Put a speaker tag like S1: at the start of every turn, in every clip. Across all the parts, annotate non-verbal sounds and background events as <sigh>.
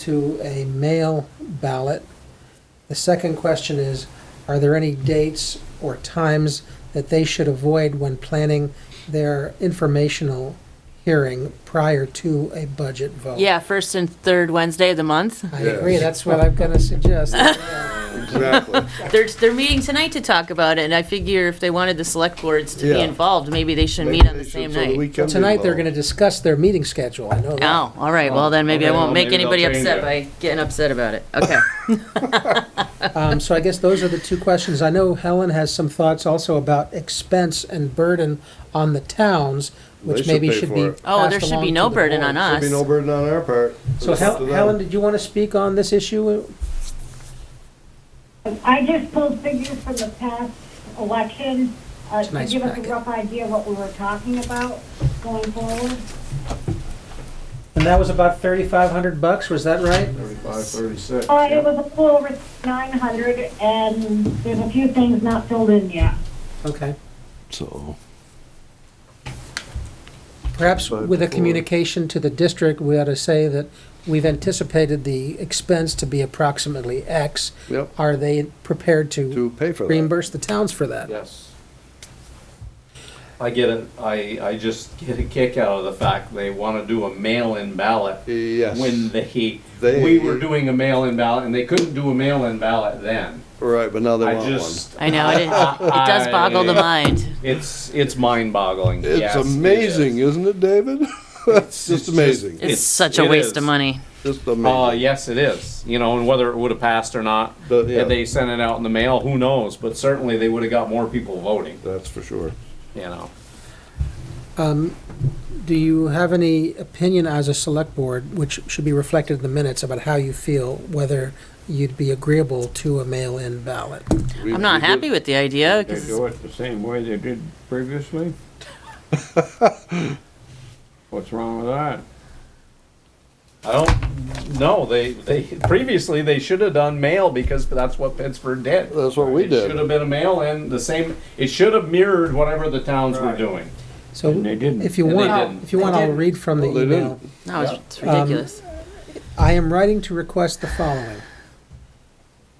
S1: to a mail ballot. The second question is, are there any dates or times that they should avoid when planning their informational hearing prior to a budget vote?
S2: Yeah, first and third Wednesday of the month.
S1: I agree, that's what I'm gonna
S2: <laughs>
S1: suggest.
S3: Exactly.
S2: They're, they're meeting tonight to talk about it, and I figure if they wanted the select boards to be
S3: Yeah.
S2: involved, maybe they should
S3: Maybe
S2: meet on
S3: they
S2: the
S3: should,
S2: same
S3: so that we
S2: night.
S3: can be
S1: Tonight, they're
S3: involved.
S1: gonna discuss their meeting schedule, I know that.
S2: Oh, all right, well then maybe I
S4: Okay,
S2: won't
S4: well,
S2: make
S4: maybe they'll
S2: anybody
S4: change
S2: upset
S4: it.
S2: by getting upset about it. Okay.
S1: Um, so I guess those are the two questions. I know Helen has some thoughts also about expense and burden on the towns,
S3: They
S1: which
S3: should
S1: maybe
S3: pay
S1: should
S3: for
S1: be
S3: it.
S2: Oh, there
S1: passed
S2: should be
S1: along
S2: no
S1: to the
S2: burden on
S1: board.
S2: us.
S3: Should be no burden on our part.
S1: So
S3: It's up
S1: Hel-
S3: to them.
S1: Helen, did you want to speak on this issue?
S5: I just pulled figures from the past election, uh, to
S1: Tonight's
S5: give us
S1: packet.
S5: a rough idea what we were talking about going forward.
S1: And that was about thirty-five hundred bucks, was that right?
S3: Thirty-five, thirty-six.
S5: Uh,
S3: yeah.
S5: it was a little over nine hundred, and there's a few things not filled in yet.
S1: Okay.
S6: So,
S1: Perhaps
S3: But
S1: with a
S3: before-
S1: communication to the district, we ought to say that we've anticipated the expense to be approximately X.
S3: Yep,
S1: Are they prepared to
S3: to pay for that.
S1: reimburse the towns for that?
S4: Yes. I get it, I, I just get a kick out of the fact they wanna do a mail-in ballot.
S3: Yes.
S4: When they,
S3: They-
S4: we were doing a mail-in ballot and they couldn't do a mail-in ballot then.
S3: Right, but now they
S4: I
S3: want one.
S4: just,
S2: I know, it, it does boggle the mind.
S4: it's, it's mind-boggling.
S3: It's
S4: Yes, it is.
S3: amazing, isn't it, David? <laughs> It's
S4: it's
S3: just
S4: just-
S3: amazing,
S2: It's
S4: It's-
S2: such a
S4: it
S2: waste
S4: is.
S2: of money.
S3: just
S4: Uh,
S3: amazing.
S4: yes, it is, you know, and whether it would've passed or not,
S3: But, yeah.
S4: had they sent it out in the mail, who knows, but certainly they would've got more people voting,
S3: That's for sure.
S4: you know.
S1: Do you have any opinion as a select board, which should be reflected in the minutes, about how you feel, whether you'd be agreeable to a mail-in ballot?
S3: We-
S2: I'm not
S3: we
S2: happy
S3: did-
S2: with the idea,
S7: They
S2: 'cause-
S7: do it the same way they did
S1: <laughs>
S7: previously? What's wrong with that?
S4: I don't know. They they previously they should have done mail because that's what Pittsburgh did.
S3: That's what we
S4: it
S3: did.
S4: Should have been a mail in the same. It should have mirrored whatever the towns were
S7: Right.
S4: doing.
S1: So
S7: And they didn't.
S1: if you
S4: And they
S1: want,
S4: didn't.
S1: if you want, I'll read from the
S3: Well, they
S1: email.
S2: no, it's
S4: Yeah.
S2: it's ridiculous.
S1: I am writing to request the following.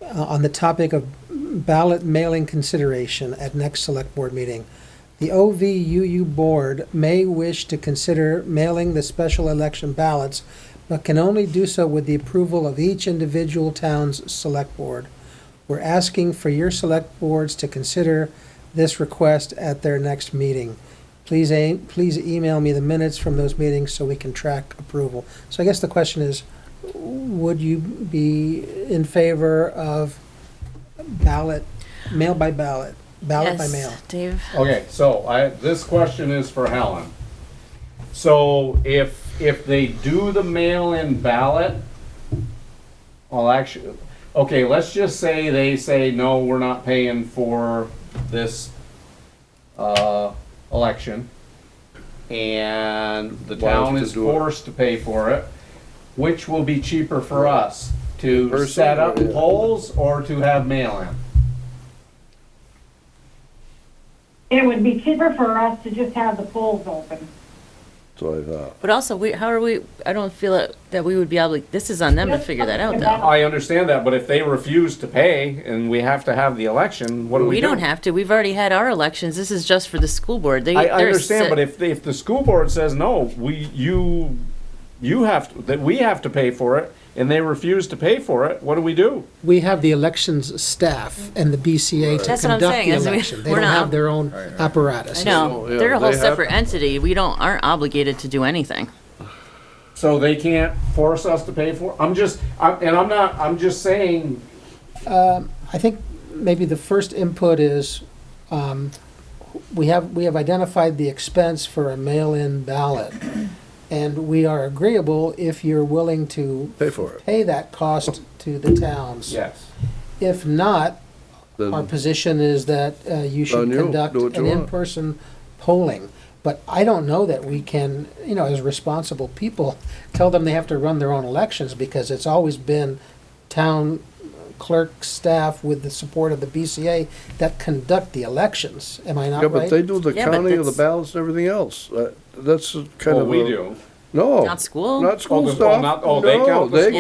S1: Uh, On the topic of ballot mailing consideration at next select board meeting. The OVUU board may wish to consider mailing the special election ballots, but can only do so with the approval of each individual town's select board. We're asking for your select boards to consider this request at their next meeting. Please, a- please email me the minutes from those meetings so we can track approval. So I guess the question is, would you be in favor of ballot, mail by ballot, ballot by
S2: Yes,
S1: mail?
S2: Dave,
S4: Okay, so I this question is for Helen. So if if they do the mail in ballot, well, actually, okay, let's just say they say no, we're not paying for this uh, election, and the
S3: Why else
S4: town
S3: to
S4: is
S3: do it?
S4: forced to pay for it. Which will be cheaper for us to
S3: person
S4: set up
S3: or- yeah.
S4: polls or to have mail in?
S5: It would be cheaper for us to just have the polls open.
S3: That's what I uh, thought.
S2: but also, we, how are we, I don't feel that, that we would be able, this is on them to figure that out though.
S4: I understand that, but if they refuse to pay and we have to have the election, what do
S2: We
S4: we do?
S2: don't have to, we've already had our elections, this is just for the school board. They-
S4: I, I
S2: they're
S4: understand,
S2: set-
S4: but if, if the school board says, no, we, you, you have, to- that we have to pay for it, and they refuse to pay for it, what do we do?
S1: We have the elections staff and the BCA to
S2: That's what
S1: conduct
S2: I'm
S1: the
S2: saying, is we-
S1: election. They
S2: we're
S1: don't
S2: not-
S1: have their own apparatus.
S2: I know,
S3: So, yeah,
S2: they're a
S3: they
S2: whole
S3: have-
S2: separate entity, we don't, aren't obligated to do anything.
S4: So they can't force us to pay for, I'm just, I'm, and I'm not, I'm just saying,
S1: I think maybe the first input is, um, we have, we have identified the expense for a mail-in ballot. And we are agreeable if you're willing to
S3: Pay for it.
S1: pay that cost to the towns.
S4: yes.
S1: If not, our
S3: Then
S1: position is that uh, you should
S3: On you,
S1: conduct
S3: do what you
S1: an
S3: want.
S1: in-person polling. But I don't know that we can, you know, as responsible people, tell them they have to run their own elections because it's always been town clerk staff with the support of the BCA that conduct the elections. Am I
S3: Yeah,
S1: not
S3: but they
S1: right?
S3: do the
S2: Yeah, but
S3: counting of the
S2: that's-
S3: ballots and everything else. That- That's kind
S4: Well,
S3: of
S4: Oh, we
S3: a-
S4: do.
S3: No.
S2: Not school?
S3: Not
S4: Oh,
S3: school
S4: the- oh,
S3: stuff.
S4: not- oh, they
S3: No,
S4: count the
S3: they
S4: school